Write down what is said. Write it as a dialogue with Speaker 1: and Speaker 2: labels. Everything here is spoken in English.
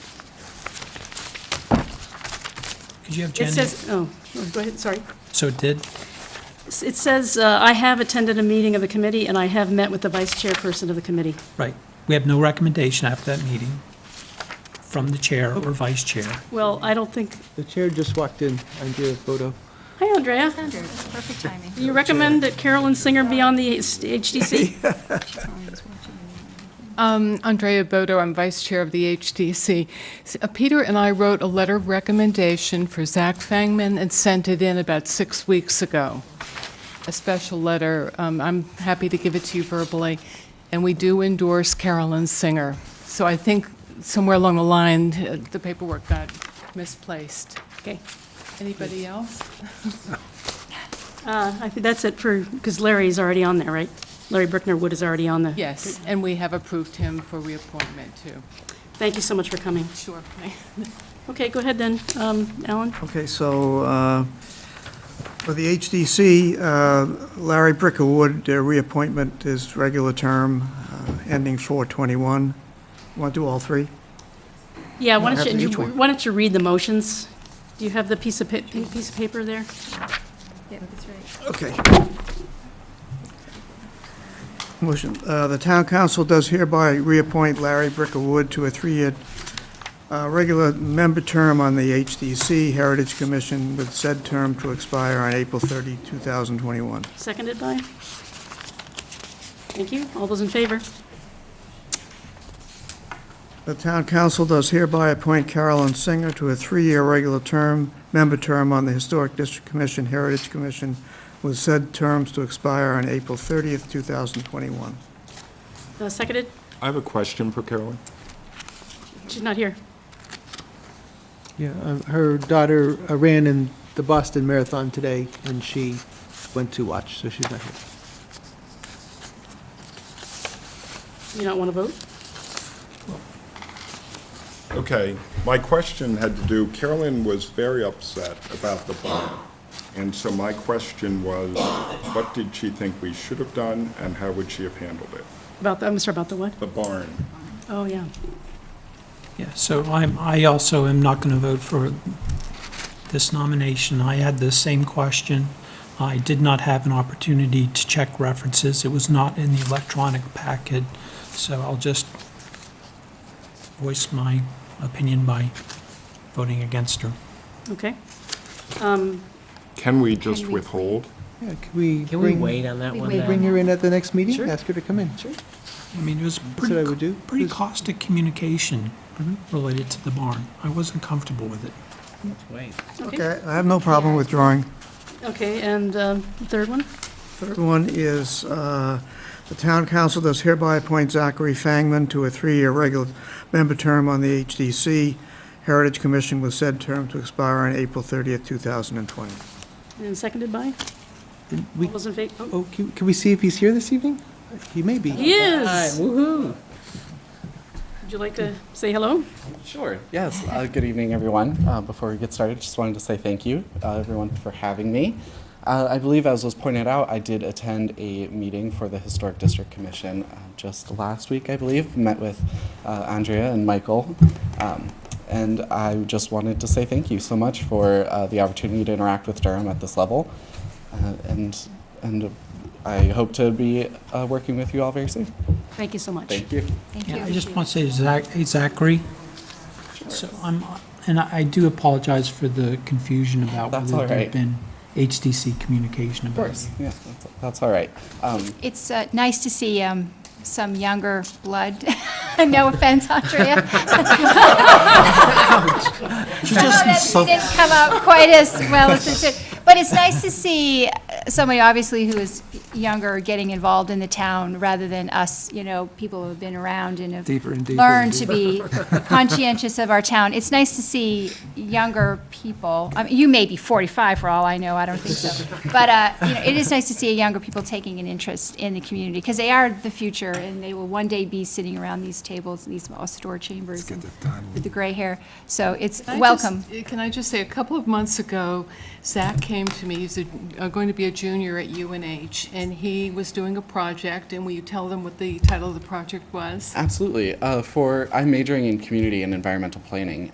Speaker 1: Did you have
Speaker 2: It
Speaker 1: Jenny?
Speaker 2: says, oh, go ahead, sorry.
Speaker 1: So it did?
Speaker 2: It says, uh, I have attended a meeting of the committee, and I have met with the vice chairperson of the committee.
Speaker 1: Right. We have no recommendation after that meeting from the chair or vice chair.
Speaker 2: Well, I don't think,
Speaker 3: The chair just walked in, Andrea Bodo.
Speaker 2: hi, Andrea.
Speaker 4: Andrew, it's perfect timing.
Speaker 2: Do you recommend that Carolyn Singer be on the HDC?
Speaker 4: She's always watching me.
Speaker 5: Um, Andrea Bodo, I'm Vice Chair of the HDC. S- uh, Peter and I wrote a letter of recommendation for Zach Fangman and sent it in about six weeks ago, a special letter. Um, I'm happy to give it to you verbally, and we do endorse Carolyn Singer. So I think somewhere along the line, uh, the paperwork got misplaced.
Speaker 2: Okay.
Speaker 5: Anybody else?
Speaker 2: Uh, I think that's it for, because Larry's already on there, right? Larry Brickner Wood is already on the.
Speaker 5: Yes, and we have approved him for reappointment, too.
Speaker 2: Thank you so much for coming.
Speaker 5: Sure.
Speaker 2: Okay, go ahead then, um, Alan.
Speaker 6: Okay, so uh, for the HDC, uh, Larry Brickerwood, their reappointment is regular term, uh, ending 421. Want to do all three?
Speaker 2: Yeah, why
Speaker 6: No,
Speaker 2: don't
Speaker 6: after
Speaker 2: you,
Speaker 6: each one.
Speaker 2: why don't you read the motions? Do you have the piece of, pa- pink piece of paper there?
Speaker 4: Yeah, that's right.
Speaker 6: Okay. Motion, uh, the town council does hereby reappoint Larry Brickerwood to a three-year uh, regular member term on the HDC Heritage Commission with said term to expire on April 30, 2021.
Speaker 2: Seconded by? Thank you. All those in favor?
Speaker 6: The town council does hereby appoint Carolyn Singer to a three-year regular term, member term on the Historic District Commission, Heritage Commission, with said terms to expire on April 30th, 2021.
Speaker 2: Uh, Seconded?
Speaker 7: I have a question for Carolyn.
Speaker 2: She's not here.
Speaker 3: Yeah, uh, her daughter uh, ran in the Boston Marathon today, and she went to watch, so she's not here.
Speaker 2: You don't want to vote?
Speaker 7: Okay, my question had to do, Carolyn was very upset about the bond. And so my question was, what did she think we should have done and how would she have handled it?
Speaker 2: About, the- I'm sorry, about the what?
Speaker 7: The barn.
Speaker 2: Oh, yeah.
Speaker 1: Yeah, so I'm, I also am not going to vote for this nomination. I had the same question. I did not have an opportunity to check references. It was not in the electronic packet, so I'll just voice my opinion by voting against her.
Speaker 2: Okay. Um,
Speaker 7: Can we just withhold?
Speaker 3: Yeah, can we
Speaker 8: Can we
Speaker 3: bring-
Speaker 8: wait on that
Speaker 4: We
Speaker 8: one
Speaker 4: wait.
Speaker 8: then?
Speaker 3: bring her in at the next meeting?
Speaker 2: Sure.
Speaker 3: Ask her to come in? Sure.
Speaker 1: I mean, it was
Speaker 3: That's what I
Speaker 1: pretty,
Speaker 3: would do.
Speaker 1: pretty
Speaker 3: Just-
Speaker 1: caustic communication related to the barn. I wasn't comfortable with it.
Speaker 8: Wait.
Speaker 2: Okay,
Speaker 6: Okay, I have no problem withdrawing.
Speaker 2: Okay. and um, the third one?
Speaker 6: Third one is, uh, the town council does hereby appoint Zachary Fangman to a three-year regular member term on the HDC Heritage Commission with said term to expire on April 30th, 2020.
Speaker 2: And seconded by?
Speaker 3: And
Speaker 2: All
Speaker 3: we-
Speaker 2: those in favor?
Speaker 3: Oh, can can we see if he's here this evening? He may be.
Speaker 2: He
Speaker 8: Hi,
Speaker 2: is!
Speaker 8: woohoo.
Speaker 2: Would you like to say hello?
Speaker 9: Sure, yes. Uh, good evening, everyone. Uh, before we get started, just wanted to say thank you, uh, everyone, for having me. Uh, I believe, as was pointed out, I did attend a meeting for the Historic District Commission uh, just last week, I believe. Met with uh, Andrea and Michael. Um, and I just wanted to say thank you so much for uh, the opportunity to interact with Durham at this level. Uh, and, and I hope to be uh, working with you all very soon.
Speaker 2: Thank you so much.
Speaker 9: Thank you.
Speaker 4: Thank you.
Speaker 1: Yeah, I just want to say to Zach, hey, Zachary. So I'm, and I I do apologize for the confusion about
Speaker 9: That's
Speaker 1: whether
Speaker 9: all
Speaker 1: there'd
Speaker 9: right.
Speaker 1: been HDC communication
Speaker 9: Of
Speaker 1: about
Speaker 9: course.
Speaker 1: it.
Speaker 9: Yes, that's, that's all right. Um,
Speaker 4: It's uh, nice to see um, some younger blood. No offense, Andrea. Some of it didn't come out quite as well as it should. But it's nice to see uh, somebody, obviously, who is younger, getting involved in the town, rather than us, you know, people who have been around and have
Speaker 3: Deeper and deeper and
Speaker 4: learned to be conscientious of our town. It's nice to see younger people, I mean, you may be 45 for all I know, I don't think so. But, uh, you know, it is nice to see younger people taking an interest in the community, because they are the future, and they will one day be sitting around these tables, these store chambers, and with the gray hair. So it's
Speaker 5: Can I
Speaker 4: welcome.
Speaker 5: just- eh, Can I just say, a couple of months ago, Zach came to me, he's a- uh, going to be a junior at UNH, and he was doing a project, and will you tell them what the title of the project was?
Speaker 9: Absolutely. Uh, for I'm majoring in community and environmental planning,